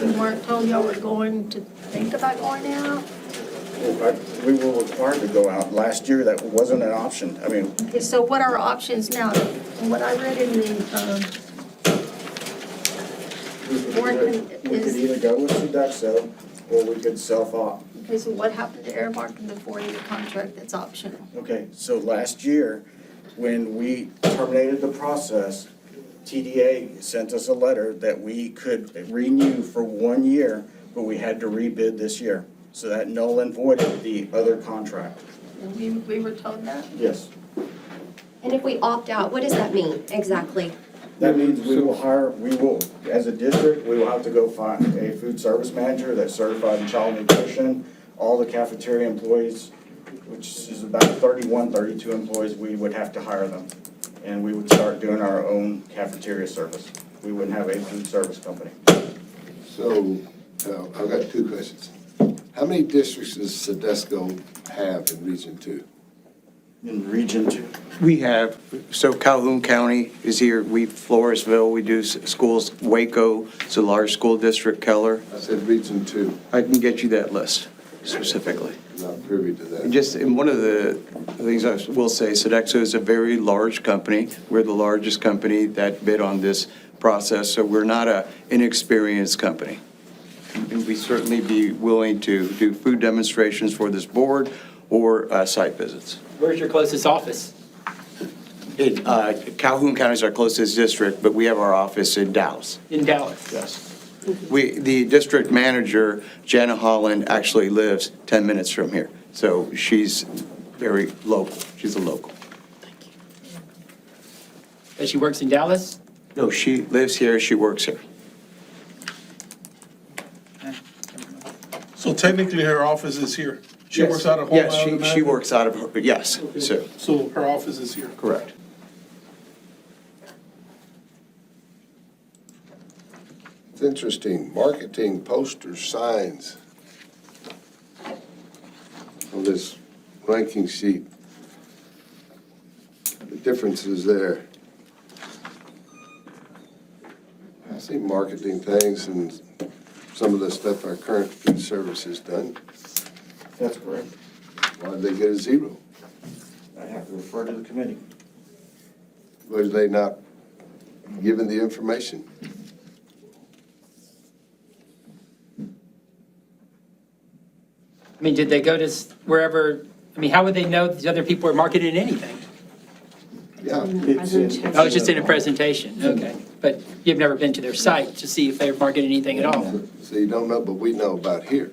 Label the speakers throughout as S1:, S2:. S1: we weren't told y'all were going to think about going out.
S2: I- We were required to go out. Last year, that wasn't an option. I mean,
S1: Okay, so what are our options now? From what I read in the,
S2: we could
S1: Or
S2: either- we could
S1: is-
S2: either go with Sodexo or we could self-op.
S1: um, okay, so what happened to Airmark in the four-year contract that's optional?
S2: Okay, so last year, when we terminated the process, TDA sent us a letter that we could renew for one year, but we had to rebid this year. So that null and voided the other contract.
S1: And we, we were told that?
S2: Yes.
S3: And if we opt out, what does that mean exactly?
S2: That means we will hire, we will, as a district, we will have to go find a food service manager that's certified in child nutrition, all the cafeteria employees, which is about 31, 32 employees, we would have to hire them. And we would start doing our own cafeteria service. We wouldn't have a food service company.
S4: So, uh, I've got two questions. How many districts does Sedesco have in Region Two?
S2: In Region Two,
S5: We have, so Calhoun County is here, we, Floresville, we do s- schools, Waco, it's a large school district, Keller.
S4: I said Region Two,
S5: I can get you that list specifically.
S4: I'm not privy to that.
S5: Just, and one of the things I will say, Sodexo is a very large company. We're the largest company that bid on this process, so we're not a inexperienced company. And we certainly be willing to do food demonstrations for this board or uh, site visits.
S6: Where's your closest office?
S5: It, uh, Calhoun County is our closest district, but we have our office in Dallas.
S6: In Dallas?
S5: Yes. We, the district manager, Jana Holland, actually lives 10 minutes from here. So she's very local. She's a local.
S6: That she works in Dallas?
S5: No, she lives here, she works here.
S7: So technically, her office is here. She works out of Home
S5: Yes,
S7: Island
S5: she, she
S7: Avenue?
S5: works out of, her yes, so,
S7: So her office is here.
S5: correct.
S4: It's interesting, marketing, posters, signs. On this ranking sheet, the difference is there. I see marketing things and some of the stuff our current food service has done.
S2: that's correct.
S4: Why did they get a zero?
S2: I have to refer to the committee.
S4: Were they not given the information?
S6: I mean, did they go to s- wherever, I mean, how would they know these other people are marketing anything?
S4: Yeah.
S2: It's in-
S6: Oh, it's just in a presentation, okay. But you've never been to their site to see if they're marketing anything at all?
S4: So you don't know, but we know about here.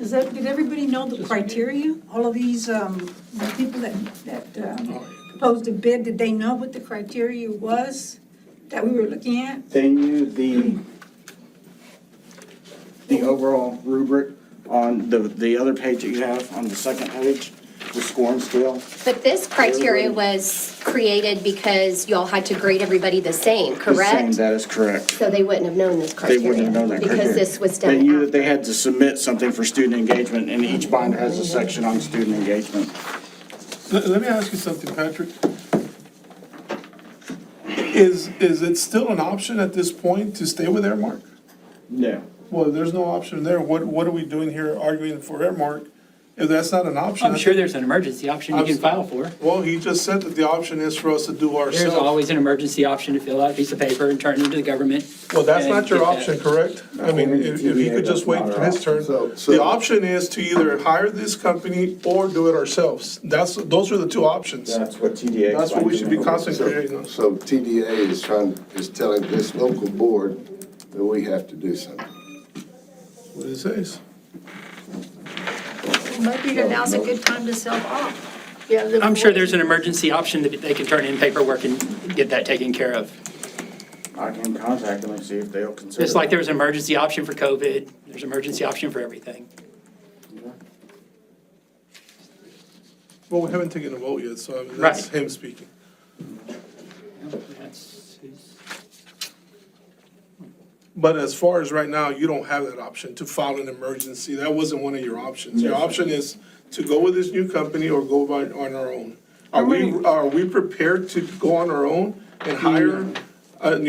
S8: Is that, did everybody know the criteria? All of these, um, the people that, that, um, proposed a bid, did they know what the criteria was that we were looking at?
S2: They knew the, the overall rubric on the, the other page that you have, on the second page, the scoring scale.
S3: But this criteria was created because y'all had to grade everybody the same,
S2: The same,
S3: correct?
S2: That is correct.
S3: So they wouldn't have known this
S2: They
S3: criteria.
S2: wouldn't have known that criteria.
S3: Because this was
S2: They knew that
S3: done
S2: they
S3: after.
S2: had to submit something for student engagement, and each binder has a section on student engagement.
S7: Let, let me ask you something, Patrick. Is, is it still an option at this point to stay with Airmark?
S2: No.
S7: Well, there's no option there. What, what are we doing here arguing for Airmark if that's not an option?
S6: I'm sure there's an emergency option you can file for.
S7: Well, he just said that the option is for us to do ourselves.
S6: There's always an emergency option to fill out a piece of paper and turn it into the government.
S7: Well, that's
S6: and
S7: not your
S6: get that.
S7: option, correct? I mean, if, if he could just wait for his turn.
S4: So- so-
S7: The option is to either hire this company or do it ourselves. That's, those are the two options.
S2: That's what TDA.
S7: That's what we should be
S4: So
S7: concentrating on.
S4: so TDA is trying, is telling this local board that we have to do something.
S7: What it says.
S1: Maybe now's a good time to sell off. Yeah, the-
S6: I'm sure there's an emergency option that they can turn in paperwork and get that taken care of.
S2: I can contact them and see if they'll consider.
S6: Just like
S2: it.
S6: there was an emergency option for COVID, there's an emergency option for everything.
S7: Well, we haven't taken a vote yet, so I mean, that's
S6: Right.
S7: him speaking.
S6: That's his-
S7: But as far as right now, you don't have that option to file an emergency. That wasn't one of your options. Your option is to go with this new company or go by, on our own. Are we, are we prepared to go on our own and hire a new